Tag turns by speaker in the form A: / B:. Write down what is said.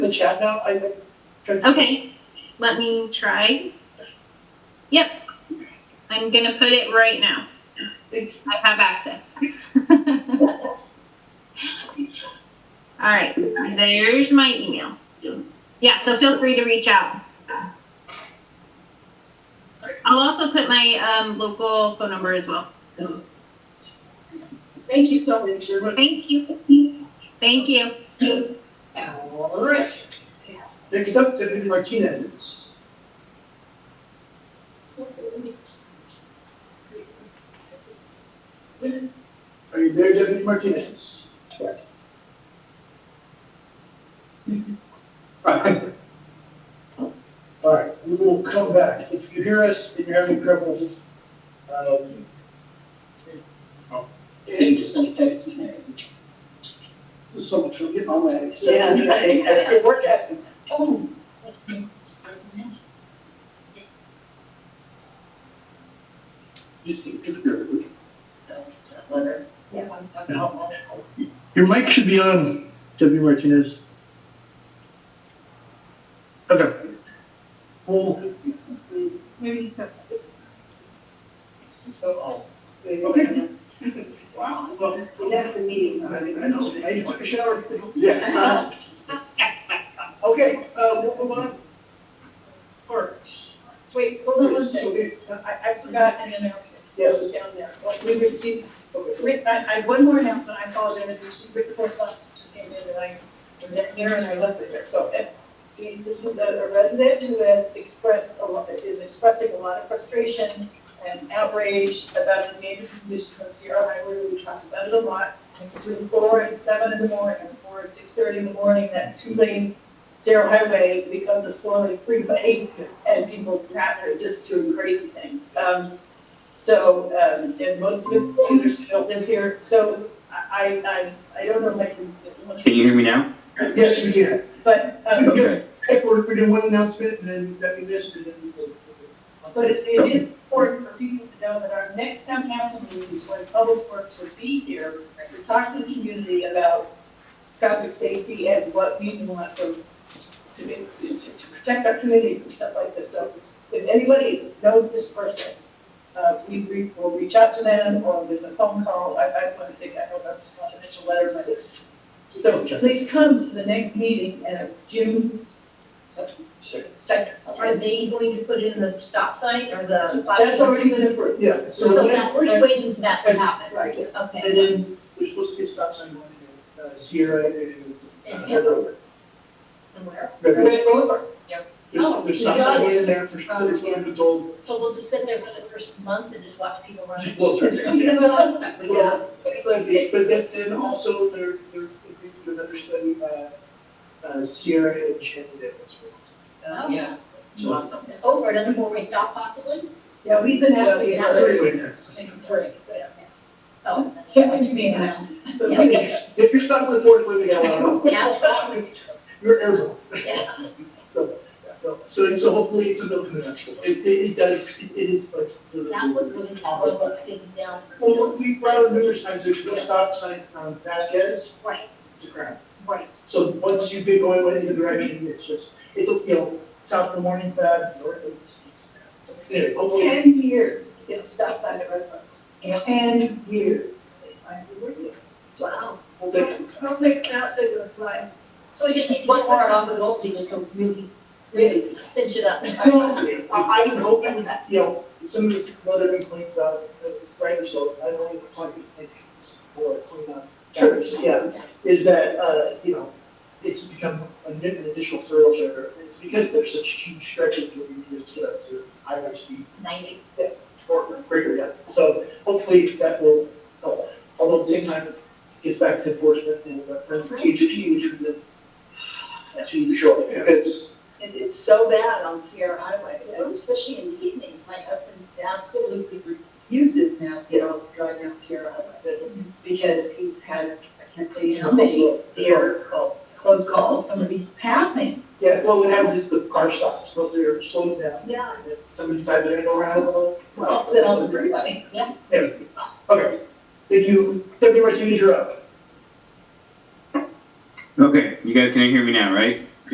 A: the chat now, I think.
B: Okay, let me try. Yep, I'm gonna put it right now.
A: Thank
B: I have access. All right, there's my email. Yeah, so feel free to reach out. I'll also put my um, local phone number as well.
A: Thank you so much. You're welcome.
B: Thank you. Thank you.
A: All right. Next up, Deputy Martinez. Are you there, Deputy Martinez? All right, we will come back. If you hear us and you're having trouble, um,
C: They're just gonna cut it in there.
A: someone should get on that.
C: Yeah, right. It
A: worked out.
C: Oh.
A: Just get to the dirt.
C: Whether.
A: Your mic should be on, W. Martinez. Okay. Well,
D: Maybe he's just.
A: okay.
C: Wow.
A: Well,
D: left the meeting.
A: I know, I took a shower. Yeah. Okay, uh, we'll move on. Parks.
D: Wait, hold on one second. I, I forgot an announcement.
A: Yes.
D: It was Down there. Like, we received, written- I, I, one more announcement, I apologize, we received written correspondence that just came in and I, was there and I left it here. So, eh, we- this is a a resident who has expressed a lot, is expressing a lot of frustration and outrage about the neighbor's condition on Sierra Highway. We talked about it a lot. Between four and seven in the morning, four and six thirty in the morning, that two-lane Sierra Highway becomes a four-lane freeway and people are just doing crazy things. Um, so, um, and most of the commuters don't live here, so I, I, I I don't know if I can.
E: Can you hear me now?
A: Yes, we can.
D: But, um,
E: Okay.
A: If we're, we're doing one announcement and then that we missed and then.
D: but it it is important for people to know that our next town council meeting is when Public Works will be here to talk to the community about traffic safety and what we want from, to, be- to, to to protect our community from stuff like this. So if anybody knows this person, uh, we, we will reach out to them, or there's a phone call, I, I want to say, I don't know, if it's confidential letter, but. So please come to the next meeting and June, second.
F: Are they going to put in the stop sign or the?
D: That's already been approved.
A: Yeah, so.
F: So
A: when-
F: that, we're just waiting for that to happen.
A: Right. And
F: Okay.
A: then we're supposed to get stop sign one, in, uh, Sierra and.
F: And Hanover. And where?
A: There's,
D: Red Rover.
F: Oh,
A: there's
F: you
A: stop
F: got
A: sign
F: it.
A: one in there for, that's what I've been told.
F: So we'll just sit there for the first month and just watch people run?
A: Well, it's right there.
D: Well,
A: Well, like this, but then, then also they're, they're agreeing to another study, uh, uh, Sierra and Chandler as well.
F: Oh,
A: So-
D: Awesome.
F: over another four-way stop possibly?
D: Yeah, we've been asking.
F: Yeah,
A: we're doing that.
D: Three.
F: Oh, that's
D: Yeah,
F: right.
D: you mean that.
F: Yeah.
A: If you're stuck in the fourth, where they got out,
F: Yeah.
A: it's, you're airborne.
F: Yeah.
A: So, so, and so hopefully it's a little conventional. It, it, it does, it it is like. the-
F: That would really slow things down for
A: Well,
F: people.
A: we brought up numerous times, there's no stop sign from Vasquez
F: Right,
A: to Crown.
F: right.
A: So once you've been going in the direction, it's just, it's, you know, south of the morning pad, north of the seas. So anyway, hopefully,
D: Ten years, to get a stop sign at Red Rover. Ten years. They finally were here.
F: Wow.
A: hopefully,
D: I'll take an outside of this line.
F: So we just need one more on the goal, so you just go really, really
A: Yes.
F: cinch it up.
A: Well, I, I would hope, I would, you know, some of these other complaints about, uh, rightly so, I don't even like complaints or cleanup. Trips, yeah, is that, uh, you know, it's become a new- an additional thoroughfare, it's because there's such huge stretches where you just get up to highway speed
F: Ninety.
A: or greater yet. So hopefully that will help, although at the same time, it gets back to enforcement and, uh, and CHP, which would then actually be short, because
C: And it's so bad on Sierra Highway,
F: Yeah.
C: especially in the evenings. My husband absolutely refuses now, you know, driving on Sierra Highway.
D: Mm-hmm.
C: Because he's had, I can't tell you how many years, Mm-hmm. close calls, somebody passing.
A: Yeah, well, what happens is the car stops, so they're slowing down,
C: Yeah.
A: and then somebody decides they're gonna go around a little.
C: I'll sit on the freeway.
A: Okay, thank you, Deputy Martinez, you're up.
E: Okay, you guys can hear me now, right?